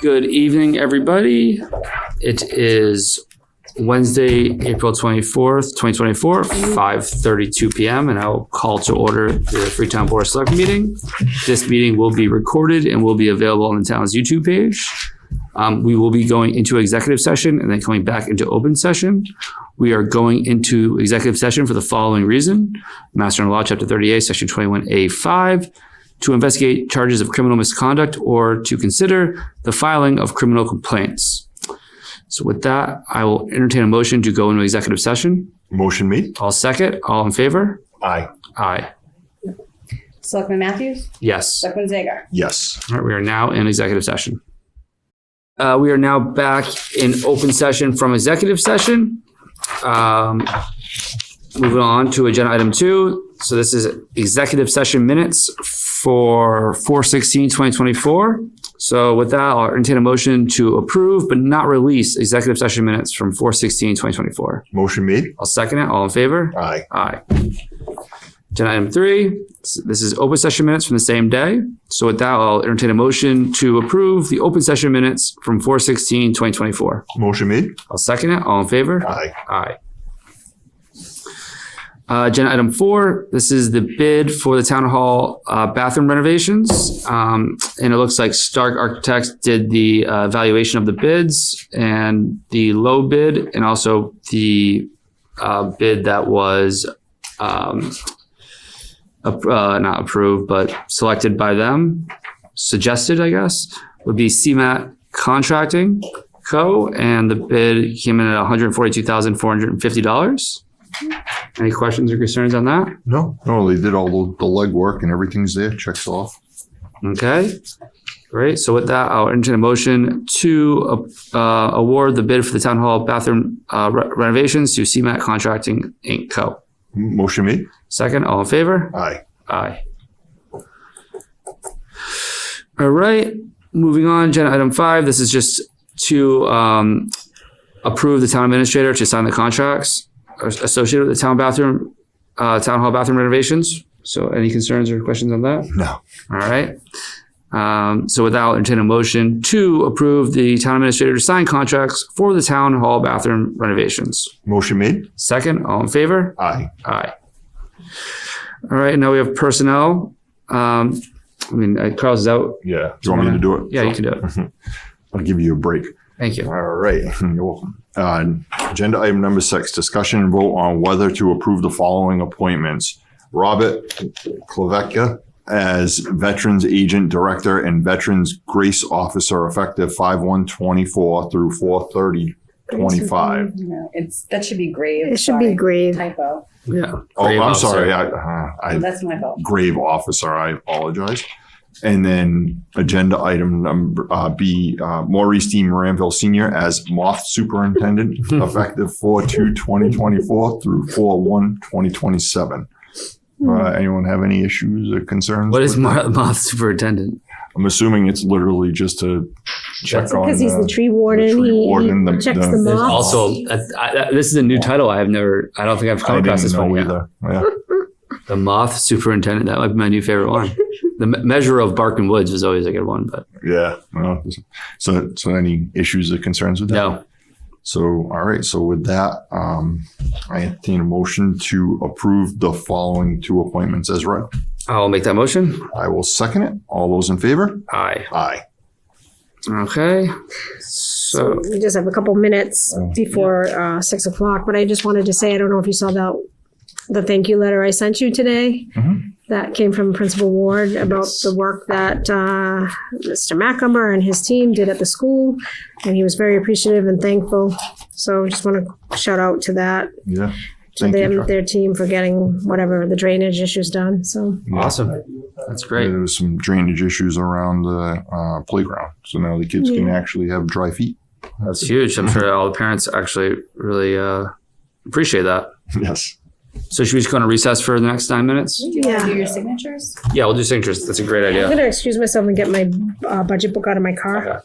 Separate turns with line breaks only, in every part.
Good evening, everybody. It is Wednesday, April 24th, 2024, 5:32 PM, and I will call to order the Freetown Board of Select meeting. This meeting will be recorded and will be available on the town's YouTube page. Um, We will be going into executive session and then coming back into open session. We are going into executive session for the following reason. Master and Law, Chapter 38, Section 21A5, to investigate charges of criminal misconduct or to consider the filing of criminal complaints. So with that, I will entertain a motion to go into executive session.
Motion made.
I'll second. All in favor?
Aye.
Aye.
Selectman Matthews?
Yes.
Selectman Zager?
Yes.
All right, we are now in executive session. Uh, we are now back in open session from executive session. Um, moving on to agenda item two. So this is executive session minutes for 2024. So with that, I'll entertain a motion to approve but not release executive session minutes from 2024. twenty-four.
Motion made.
I'll second it. All in favor?
Aye.
Aye. Agenda item three, s- this is open session minutes from the same day. So with that, I'll entertain a motion to approve the open session minutes from 2024. sixteen twenty twenty-four.
Motion made.
I'll second it. All in favor?
Aye.
Aye. Uh, agenda item four, this is the bid for the town hall, uh, bathroom renovations. Um, and it looks like Stark Architects did the, uh, valuation of the bids and the low bid and also the, uh, bid that was, um, ap- uh, not approved, but selected by them, suggested, I guess, would be CMAT Contracting. Co. And the bid came in at one hundred forty-two thousand four hundred and fifty dollars. Any questions or concerns on that?
No, no, they did all the, the legwork and everything's there. Checks off.
Okay, great. So with that, I'll entertain a motion to uh, uh, award the bid for the town hall bathroom uh, re- renovations to CMAT Contracting Inc. Co.
M- Motion made.
Second, all in favor?
Aye.
Aye. All right, moving on, agenda item five, this is just to um approve the town administrator to sign the contracts associated with the town bathroom, uh, town hall bathroom renovations. So any concerns or questions on that?
No.
All right. Um, so with that, I'll entertain a motion to approve the town administrator to sign contracts for the town hall bathroom renovations.
Motion made.
Second, all in favor?
Aye.
Aye. All right, now we have personnel. Um, I mean, uh, Carl's is out.
Yeah. Do you want me to do it?
Yeah, you can do it.
I'll give you a break.
Thank you.
All right. You're welcome. Uh, agenda item number six, discussion and vote on whether to approve the following appointments. Robert Klavecka as Veterans Agent Director and Veterans Grace Officer effective five one twenty-four through four thirty twenty-five.
Mm-hmm. No, it's, that should be grave.
It should be
Sorry.
grave.
Typo.
Yeah.
Oh,
Grave
I'm
officer.
sorry. I, uh, I
That's my fault.
grave officer. I apologize. And then agenda item number uh, B, uh, Maurice D. Moranville Senior as Moth Superintendent, effective 4 2 2024 through 4 1 2027.
Hmm.
Uh, anyone have any issues or concerns?
What is
with
Mar-
that?
moth superintendent?
I'm assuming it's literally just to check on.
Because he's
uh,
the tree warden,
tree
he-
warden, the-
he checks
the-
them
There's
off.
also, uh, I, I, this is a new title. I have never, I don't think I've come
I
across this
didn't know
one yet.
either. Yeah.
The moth superintendent. That might be my new favorite one. the me- measure of bark and woods was always a good one, but
Yeah. Well, so, so any issues or concerns with that?
no.
So, all right. So with that, um, I entertain a motion to approve the following two appointments as read.
I'll make that motion.
I will second it. All those in favor?
Aye.
Aye.
Okay.
So
So,
we just have a couple minutes
Oh,
before uh, six o'clock, but I just wanted to say, I don't know if you saw that, the thank you letter I sent you today.
Mhm.
That came from Principal Ward about
Yes.
the work that uh, Mr. Macumber and his team did at the school. And he was very appreciative and thankful. So just want to shout out to that,
Yeah.
to
Thank you.
them,
Chuck.
their team for getting whatever the drainage issues done, so.
awesome. That's great.
There was some drainage issues around the uh, playground. So now the kids can
Yeah.
actually have dry feet.
That's huge. I'm sure all the parents actually really uh, appreciate that.
Yes.
So should we just go on a recess for the next nine minutes?
Do you want
Yeah.
to do your signatures?
Yeah, we'll do signatures. That's a great
I'm
idea.
gonna excuse myself and get my uh, budget book out of my car.
Okay.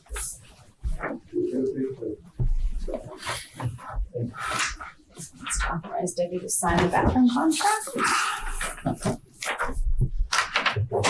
Let's Authorize Debbie to sign the bathroom contract?